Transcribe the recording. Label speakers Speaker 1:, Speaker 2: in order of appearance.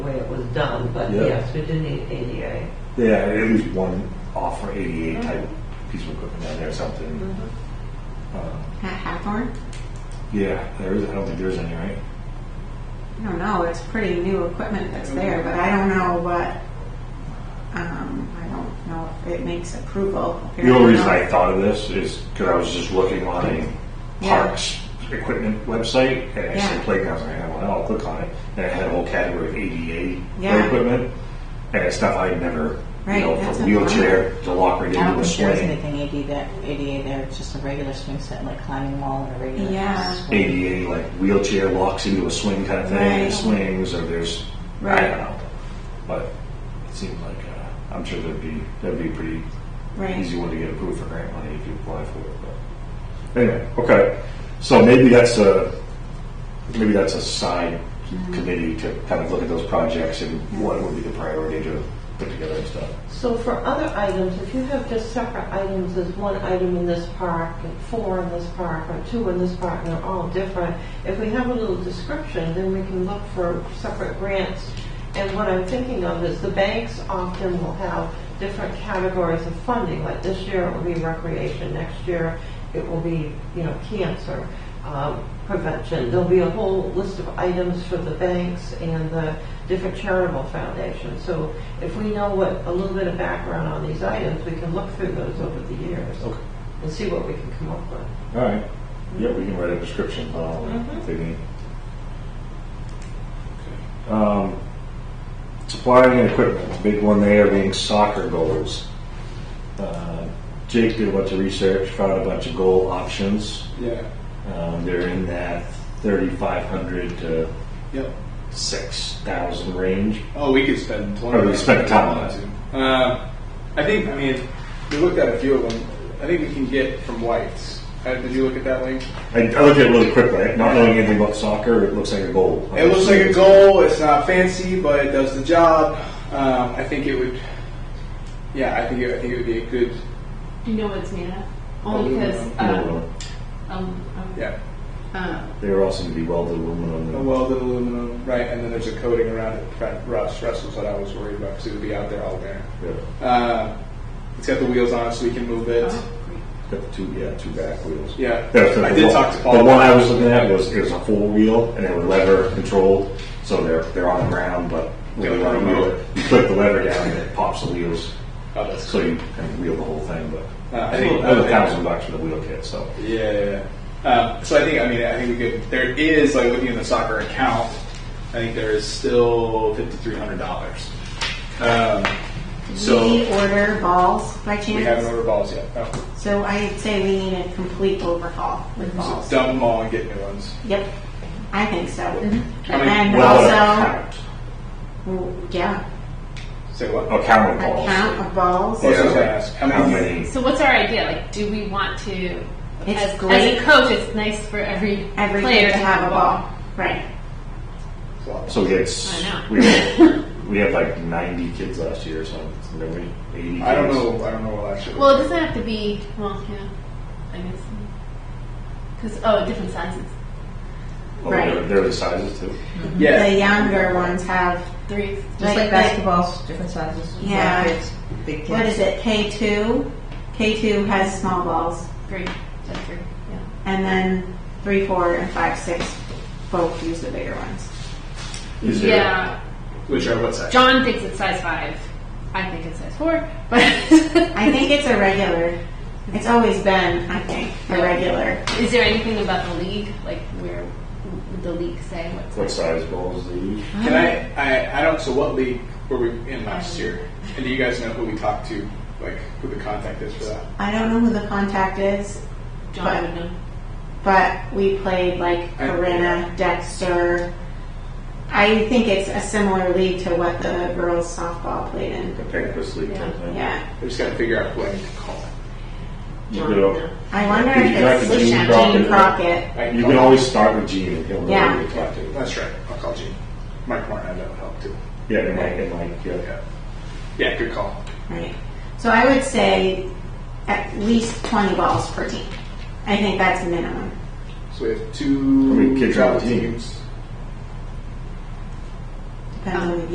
Speaker 1: done, but
Speaker 2: Yeah.
Speaker 1: yes, we do need ADA.
Speaker 2: Yeah, at least one offer ADA
Speaker 3: Mm-hmm.
Speaker 2: type piece of equipment on there or something. Uh,
Speaker 3: At Hathorn?
Speaker 2: Yeah, there is, I don't think there is any, right?
Speaker 3: I don't know, it's pretty new equipment that's there, but I don't know what, um, I don't know if it makes approval.
Speaker 2: The only reason I thought of this is because I was just looking on a
Speaker 3: Yeah.
Speaker 2: parks equipment website and I said
Speaker 3: Yeah.
Speaker 2: playgrounds, and I went, oh, I'll click on it. And it had a whole category of ADA
Speaker 3: Yeah.
Speaker 2: equipment and stuff I had never, you
Speaker 3: Right,
Speaker 2: know,
Speaker 3: that's
Speaker 2: from
Speaker 3: a lot.
Speaker 2: wheelchair to locker
Speaker 4: I don't
Speaker 2: into a
Speaker 4: think there's
Speaker 2: swing.
Speaker 4: anything AD that- ADA there, it's just a regular swing set, like climbing wall and a regular.
Speaker 3: Yeah.
Speaker 4: swing.
Speaker 2: ADA, like wheelchair locks into a swing kind of thing, and
Speaker 3: Right.
Speaker 2: it swings, or there's, I
Speaker 3: Right.
Speaker 2: don't know. But it seemed like, uh, I'm sure that'd be, that'd be a pretty easy
Speaker 3: Right,
Speaker 2: one to get approved for grant money if you apply for it, but. Anyway, okay, so maybe that's a, maybe that's a side
Speaker 3: Mm-hmm.
Speaker 2: committee to kind of look at those projects and what would be the priority to put together and stuff.
Speaker 1: So for other items, if you have just separate items, there's one item in this park, and four in this park, or two in this park, and they're all different. If we have a little description, then we can look for separate grants. And what I'm thinking of is the banks often will have different categories of funding, like this year it will be recreation, next year it will be, you know, cancer um, prevention. There'll be a whole list of items for the banks and the different charitable foundations. So if we know what, a little bit of background on these items, we can look through those over the years
Speaker 2: Okay.
Speaker 1: and see what we can come up with.
Speaker 2: All right, yeah, we can write a Oh, description on all that if they need. Um, Supplying and equipment, the big one there being soccer goals. Uh, Jake did a bunch of research, found a bunch of goal options.
Speaker 5: Yeah,
Speaker 2: Um, They're in that 3,500 to
Speaker 5: yep.
Speaker 2: 6,000 range.
Speaker 5: Oh, we could spend twenty.
Speaker 2: Oh, we could spend time on
Speaker 5: it. Uh, I think. I mean, we looked at a few of them. I think we can get from Whites. Uh, did you look at that link?
Speaker 2: I I looked at it really quickly, not knowing anything about soccer, it looks like a goal.
Speaker 5: It looks like a goal. It's not fancy, but it does the job. Um, I think it would. Yeah, I think it, I think it would be a good.
Speaker 6: Do you know what it's made of? Only because, uh,
Speaker 2: Aluminum.
Speaker 6: um, um,
Speaker 5: Yeah,
Speaker 6: uh,
Speaker 2: They are also going to be welded aluminum.
Speaker 5: a welded aluminum, right? And then there's a coating around it. In fact, rust. Rust was what I was worried about because it would be out there all winter.
Speaker 2: Yeah.
Speaker 5: Uh, it's got the wheels on, it so we can move it.
Speaker 6: oh, great.
Speaker 2: Got the two, yeah, two back wheels.
Speaker 5: Yeah.
Speaker 2: That's the-
Speaker 5: I did talk to Paul.
Speaker 2: The one I was looking at was, it was a four wheel and they were lever controlled, so they're, they're on the ground, but when
Speaker 5: Yeah,
Speaker 2: you want to
Speaker 5: remote.
Speaker 2: wheel it, you click the lever down and it pops the wheels,
Speaker 5: Oh, that's
Speaker 2: so you can wheel the whole thing, but.
Speaker 5: Uh, I
Speaker 2: It's
Speaker 5: think-
Speaker 2: a little- it's a thousand bucks for the wheel kit, so.
Speaker 5: Yeah, yeah, yeah. Uh, so I think I mean I think we could. There is like looking at the soccer account. I think there is still fifty three hundred dollars. Um, so
Speaker 3: we order balls by
Speaker 5: we haven't
Speaker 3: chance,
Speaker 5: ordered balls yet. Oh,
Speaker 3: so I'd say we need a complete overhaul with
Speaker 5: so
Speaker 3: balls.
Speaker 5: dump them all and get new ones.
Speaker 3: Yep, I think so.
Speaker 6: Mm-hmm.
Speaker 3: And
Speaker 5: I mean,
Speaker 3: then
Speaker 2: Well,
Speaker 3: also,
Speaker 2: account,
Speaker 3: well, yeah,
Speaker 5: Say what?
Speaker 2: account
Speaker 3: a
Speaker 2: of balls.
Speaker 3: count of balls.
Speaker 5: Yeah. I was gonna ask, how
Speaker 2: How
Speaker 5: many-
Speaker 2: many?
Speaker 6: So what's our idea? Like, do we want to?
Speaker 3: It's
Speaker 6: as,
Speaker 3: great.
Speaker 6: as a coach, it's nice for every
Speaker 3: Every
Speaker 6: player
Speaker 3: kid to have a ball. Right,
Speaker 2: So we had, s-
Speaker 6: I know.
Speaker 2: we had, we had like ninety kids last year or something, didn't we? Eighty
Speaker 5: I don't
Speaker 2: kids.
Speaker 5: know. I don't know what actually.
Speaker 6: Well, it doesn't have to be. Well, yeah, I guess. Because oh, different sizes.
Speaker 2: Oh, they're-
Speaker 3: Right.
Speaker 2: They're the sizes too.
Speaker 5: yeah.
Speaker 3: the um, younger ones have,
Speaker 6: Threes.
Speaker 4: Just
Speaker 3: Like
Speaker 4: like
Speaker 3: that-
Speaker 4: basketballs, different sizes.
Speaker 3: Yeah.
Speaker 4: Kids, Big kids.
Speaker 3: what is it, K two? K two has small balls,
Speaker 6: Three. Just three. Yeah.
Speaker 3: and then three, four, and five, six both use the bigger ones.
Speaker 2: Is there-
Speaker 6: yeah.
Speaker 5: Which are what's that?
Speaker 6: John thinks it's size five. I think it's size four. But
Speaker 3: I think it's a regular. It's always been, I think, a regular.
Speaker 6: is there anything about the league, like where would the league say what's
Speaker 2: What size balls do you?
Speaker 5: Can I, I? I don't. So what league were we in last year? And do you guys know who we talked to? Like who the contact is for that?
Speaker 3: I don't know who the contact is,
Speaker 6: John would know?
Speaker 3: but we played like
Speaker 5: I-
Speaker 3: Corinna, Dexter. I think it's a similar league to what the girls softball played in.
Speaker 2: The Pancras League type thing?
Speaker 3: Yeah.
Speaker 5: I just got to figure out who I need to call.
Speaker 2: You could al-
Speaker 3: I wonder
Speaker 2: You
Speaker 3: if
Speaker 2: got
Speaker 3: it's
Speaker 2: the Gene Crockett.
Speaker 3: Gene Crockett.
Speaker 5: I
Speaker 2: You
Speaker 5: call-
Speaker 2: can always start with Gene and he'll know
Speaker 3: Yeah.
Speaker 2: who to talk to.
Speaker 5: That's right. I'll call Gene. Mike Martin, that would help too.
Speaker 2: Yeah, and Mike, and Mike, yeah.
Speaker 5: Yeah. Yeah, good call.
Speaker 3: Right. So I would say at least 20 balls per team. I think that's minimum.
Speaker 5: So we have
Speaker 2: How many
Speaker 5: two
Speaker 2: kids are on
Speaker 5: travel
Speaker 2: the team?
Speaker 5: teams.
Speaker 3: Depends on the